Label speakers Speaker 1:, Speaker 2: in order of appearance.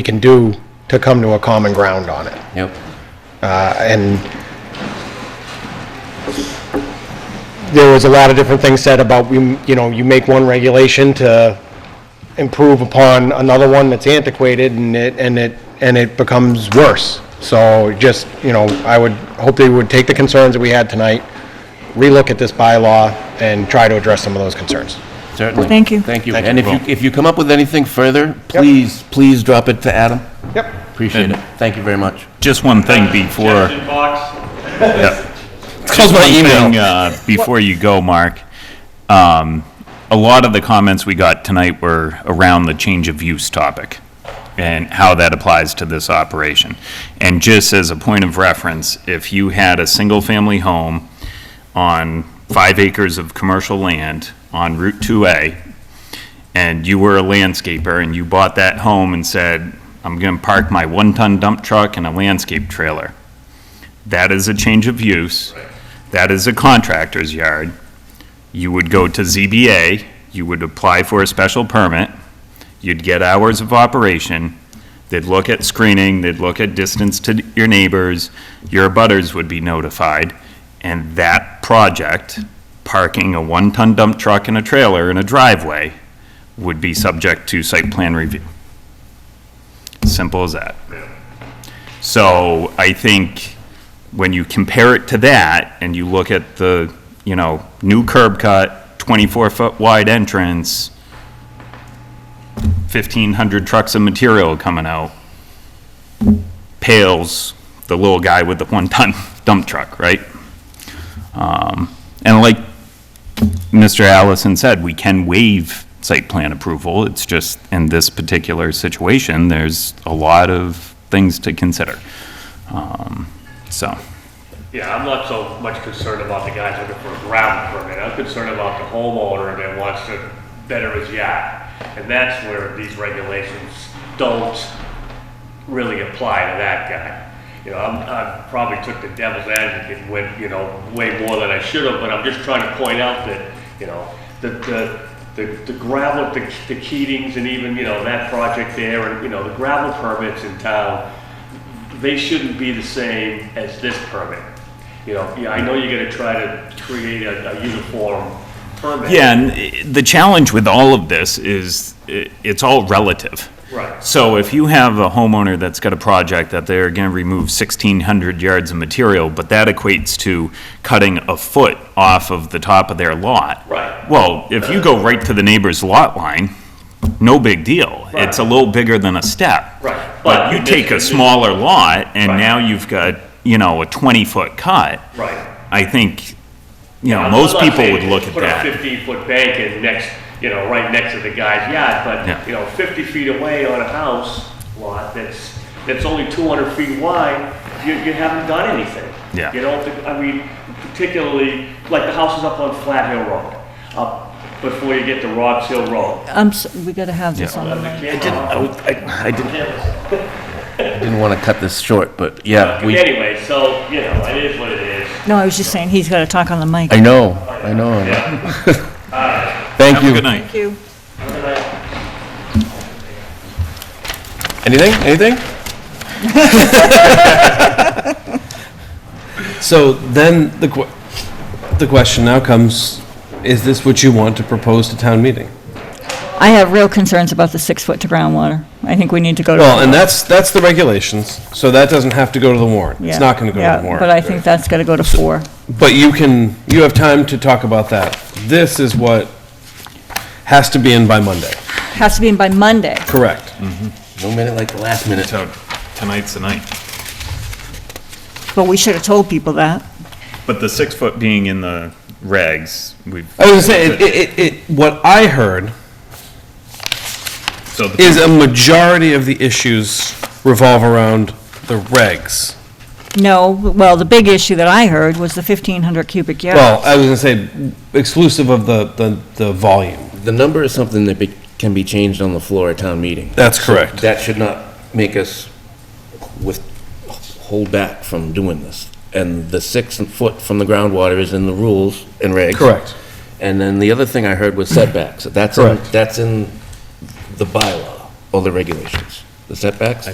Speaker 1: we can do to come to a common ground on it.
Speaker 2: Yep.
Speaker 1: Uh, And there was a lot of different things said about, we- you know, you make one regulation to improve upon another one that's antiquated and it, and it, and it becomes worse. So just, you know, I would hope they would take the concerns that we had tonight, relook at this bylaw and try to address some of those concerns.
Speaker 2: Certainly.
Speaker 3: Thank you.
Speaker 2: Thank you.
Speaker 4: Thank
Speaker 2: And
Speaker 4: you,
Speaker 2: if you,
Speaker 4: Paul.
Speaker 2: if you come up with anything further, please, please drop it to Adam.
Speaker 1: Yep.
Speaker 2: Appreciate it. Thank you very much.
Speaker 4: Just one thing before,
Speaker 5: Suggestion box.
Speaker 4: just
Speaker 2: my
Speaker 4: one
Speaker 2: email.
Speaker 4: thing, uh, before you go, Mark. Um, a lot of the comments we got tonight were around the change of use topic and how that applies to this operation. And just as a point of reference, if you had a single-family home on five acres of commercial land on Route 2A, and you were a landscaper and you bought that home and said, I'm going to park my one-ton dump truck and a landscape trailer. That is a change of use. That is a contractor's yard. You would go to ZBA, you would apply for a special permit, you'd get hours of operation, they'd look at screening, they'd look at distance to your neighbors, your abutters would be notified, and that project, parking a one-ton dump truck and a trailer in a driveway, would be subject to site plan review. Simple as that. So I think when you compare it to that and you look at the, you know, new curb cut, 24-foot wide entrance, 1,500 trucks of material coming out, pales the little guy with the one-ton dump truck, right? Um, And like Mr. Allison said, we can waive site plan approval. It's just, in this particular situation, there's a lot of things to consider. Um, So,
Speaker 5: Yeah, I'm not so much concerned about the guys looking for a ground permit. I'm concerned about the homeowner that wants to better his yacht. And that's where these regulations don't really apply to that guy. You know, I'm, I probably took the devil's advocate with, you know, way more than I should have, but I'm just trying to point out that, you know, the, the, the, the gravel, the, the Keatings and even, you know, that project there and, you know, the gravel permits in town, they shouldn't be the same as this permit. You know, yeah, I know you're gonna try to create a, a uniform permit.
Speaker 4: yeah, and i- the challenge with all of this is, i- it's all relative.
Speaker 5: Right.
Speaker 4: So if you have a homeowner that's got a project that they're gonna remove 1,600 yards of material, but that equates to cutting a foot off of the top of their lot.
Speaker 5: Right.
Speaker 4: Well, if you go right to the neighbor's lot line, no big deal. It's a little bigger than a step.
Speaker 5: Right.
Speaker 4: But you take a smaller lot, and
Speaker 5: Right.
Speaker 4: now you've got, you know, a 20-foot cut.
Speaker 5: Right.
Speaker 4: I think, you know,
Speaker 5: I'm
Speaker 4: most
Speaker 5: not
Speaker 4: people
Speaker 5: saying
Speaker 4: would look at
Speaker 5: Put a
Speaker 4: that.
Speaker 5: fifteen foot bank in next, you know, right next to the guy's yacht,
Speaker 4: Yeah.
Speaker 5: but, you know, fifty feet away on a house lot that's, that's only two hundred feet wide, you, you haven't done anything.
Speaker 4: Yeah.
Speaker 5: You know, the- I mean, particularly, like the houses up on Flat Hill Road, up before you get to Rob's Hill Road.
Speaker 3: I'm, s- we gotta have this on the
Speaker 5: I
Speaker 3: record.
Speaker 5: can't-
Speaker 2: I, I didn't, didn't want to cut this short, but
Speaker 4: Uh,
Speaker 2: yeah, we,
Speaker 5: Anyway, so, you know, it is what it is.
Speaker 3: No, I was just saying, he's gotta talk on the mic.
Speaker 2: I know, I know.
Speaker 5: Yeah.
Speaker 2: Thank
Speaker 4: Have a
Speaker 2: you.
Speaker 4: good night.
Speaker 3: Thank you.
Speaker 2: Anything, anything?
Speaker 6: So then the, que- the question now comes, is this what you want to propose to town meeting?
Speaker 3: I have real concerns about the six foot to groundwater. I think we need to go to.
Speaker 6: Well, and that's, that's the regulations, so that doesn't have to go to the warrant.
Speaker 3: Yeah,
Speaker 6: It's not going to go
Speaker 3: yeah,
Speaker 6: to the
Speaker 3: But I
Speaker 6: warrant.
Speaker 3: think that's gotta go to four.
Speaker 6: But you can, you have time to talk about that. This is what has to be in by Monday,
Speaker 3: Has to be in by Monday.
Speaker 6: correct?
Speaker 2: No minute like the last minute.
Speaker 4: So tonight's the night.
Speaker 3: But we should have told people that.
Speaker 4: But the six foot being in the regs, we
Speaker 6: I was going to say, it, it, it, what I heard
Speaker 4: so the,
Speaker 6: is a majority of the issues revolve around the regs.
Speaker 3: No, well, the big issue that I heard was the fifteen hundred cubic
Speaker 6: Well,
Speaker 3: yards.
Speaker 6: I was going to say exclusive of the, the, the volume.
Speaker 2: The number is something that be- can be changed on the floor at town meeting.
Speaker 6: That's correct.
Speaker 2: That should not make us with, hold back from doing this. And the six foot from the groundwater is in the rules and regs.
Speaker 6: Correct.
Speaker 2: And then the other thing I heard was setbacks. That's in,
Speaker 6: Correct.
Speaker 2: that's in the bylaw or the regulations. the setbacks?